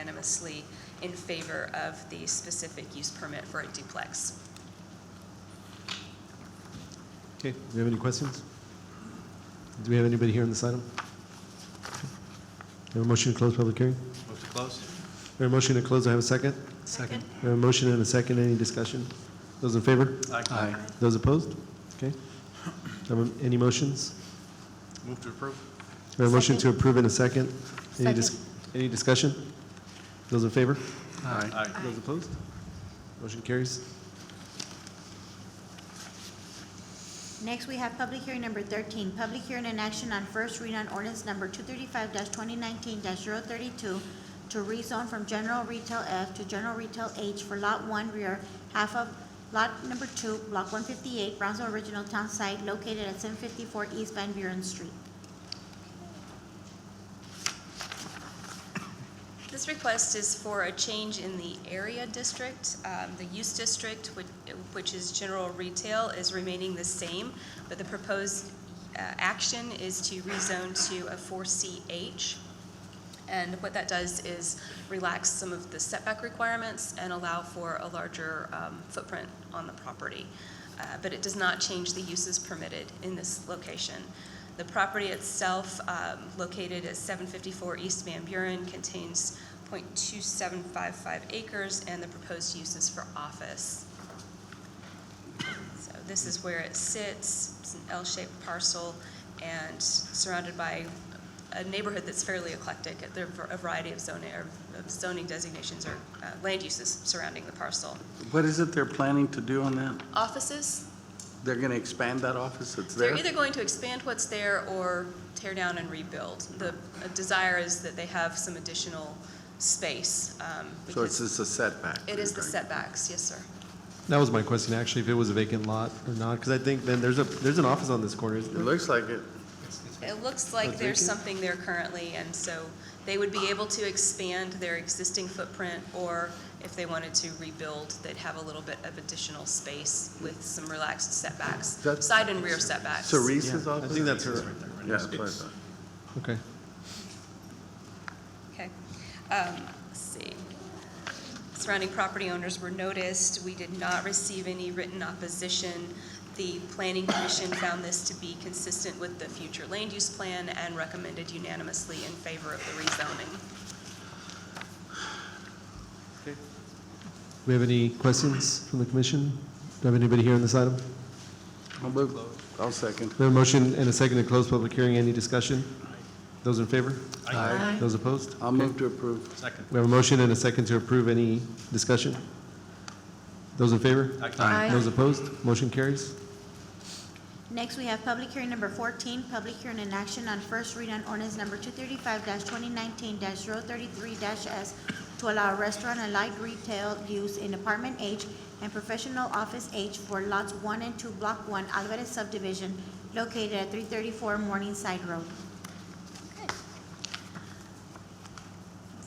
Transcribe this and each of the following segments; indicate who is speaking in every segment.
Speaker 1: unanimously in favor of the specific use permit for a duplex.
Speaker 2: Okay, do we have any questions? Do we have anybody here on this item? Have a motion to close public hearing?
Speaker 3: Move to close?
Speaker 2: We have a motion to close, I have a second?
Speaker 3: Second.
Speaker 2: We have a motion and a second, any discussion? Those in favor?
Speaker 3: Aye.
Speaker 2: Those opposed? Okay. Um, Any motions?
Speaker 3: Move to approve?
Speaker 2: We have a motion to approve in a second? Any dis-
Speaker 4: Second.
Speaker 2: Any discussion? Those in favor?
Speaker 3: Aye.
Speaker 2: Those opposed? Motion carries.
Speaker 4: Next, we have public hearing number thirteen, public hearing and action on first read on ordinance number two thirty-five twenty nineteen 32 to rezone from general retail F to general retail H for lot one rear half of lot number two, block one fifty-eight, Brownsville Original Town Site located at seven fifty-four East Van Buren Street.
Speaker 1: This request is for a change in the area district. Um, The use district, which- which is general retail, is remaining the same, but the proposed uh, action is to rezone to a 4CH. And what that does is relax some of the setback requirements and allow for a larger um, footprint on the property. Uh, But it does not change the uses permitted in this location. The property itself, um, located at 754 East Van Buren, contains .2755 acres, and the proposed use is for office. So this is where it sits. It's an L-shaped parcel and surrounded by a neighborhood that's fairly eclectic. There are a variety of zoning, or of zoning designations or uh, land uses surrounding the parcel.
Speaker 5: What is it they're planning to do on that?
Speaker 1: Offices,
Speaker 5: They're going to expand that office that's there?
Speaker 1: they're either going to expand what's there or tear down and rebuild. The uh, desire is that they have some additional space. um,
Speaker 5: So it's
Speaker 1: because
Speaker 5: just a setback?
Speaker 1: It is the
Speaker 5: setback.
Speaker 1: setbacks, yes, sir.
Speaker 2: That was my question, actually, if it was a vacant lot or not, because I think then there's a, there's an office on this corner, isn't
Speaker 5: It
Speaker 2: there?
Speaker 5: looks like it.
Speaker 1: It looks like
Speaker 2: Not
Speaker 1: there's
Speaker 2: vacant?
Speaker 1: something there currently, and so they would be able to expand their existing footprint, or if they wanted to rebuild, they'd have a little bit of additional space with some relaxed setbacks,
Speaker 5: That's-
Speaker 1: side and rear setbacks.
Speaker 5: Cerise's
Speaker 2: I
Speaker 5: office?
Speaker 2: think that's her,
Speaker 5: Yeah, that's what I thought.
Speaker 2: okay.
Speaker 1: Okay. Um, Let's see. Surrounding property owners were noticed. We did not receive any written opposition. The planning commission found this to be consistent with the future land use plan and recommended unanimously in favor of the rezoning.
Speaker 2: We have any questions from the commission? Do we have anybody here on this item?
Speaker 5: I'll move, I'll second.
Speaker 2: We have a motion and a second to close public hearing, any discussion? Those in favor?
Speaker 5: Aye.
Speaker 2: Those opposed?
Speaker 5: I'll move to approve.
Speaker 3: Second.
Speaker 2: We have a motion and a second to approve, any discussion? Those in favor?
Speaker 3: Aye.
Speaker 2: Those opposed? Motion carries.
Speaker 4: Next, we have public hearing number fourteen, public hearing in action on first read on ordinance number two thirty-five twenty nineteen 33s to allow restaurant and light retail use in apartment H and professional office H for lots one and two, block one, Alvarez subdivision, located at three thirty-four Morningside Road.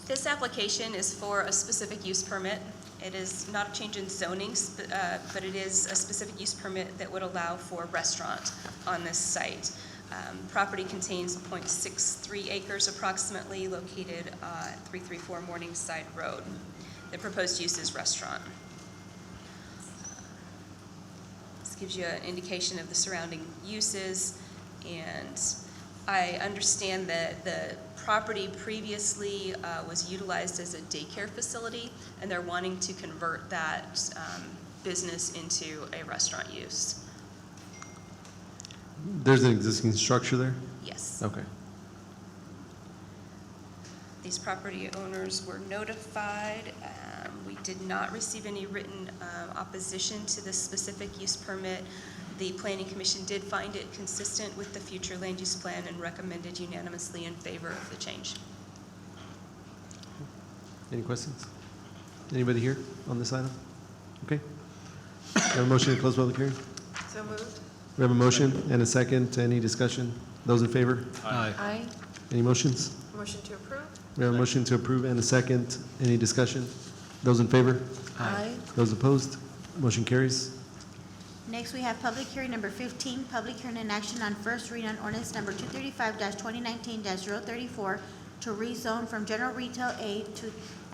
Speaker 1: This application is for a specific use permit. It is not a change in zoning, sp- uh, but it is a specific use permit that would allow for a restaurant on this site. Um, Property contains .63 acres approximately, located uh, at 334 Morningside Road. The proposed use is restaurant. This gives you an indication of the surrounding uses, and I understand that the property previously uh, was utilized as a daycare facility, and they're wanting to convert that um, business into a restaurant use.
Speaker 2: There's an existing structure there?
Speaker 1: Yes.
Speaker 2: Okay.
Speaker 1: These property owners were notified. Um, We did not receive any written um, opposition to this specific use permit. The planning commission did find it consistent with the future land use plan and recommended unanimously in favor of the change.
Speaker 2: Any questions? Anybody here on this item? Okay. We have a motion to close public hearing?
Speaker 1: So moved.
Speaker 2: We have a motion and a second, any discussion? Those in favor?
Speaker 6: Aye.
Speaker 2: Any motions?
Speaker 6: Motion to approve?
Speaker 2: We have a motion to approve and a second. Any discussion? Those in favor?
Speaker 6: Aye.
Speaker 2: Those opposed? Motion carries.
Speaker 4: Next, we have public hearing number fifteen, public hearing in action on first read on ordinance number two thirty-five twenty nineteen 34 to rezone from general retail A to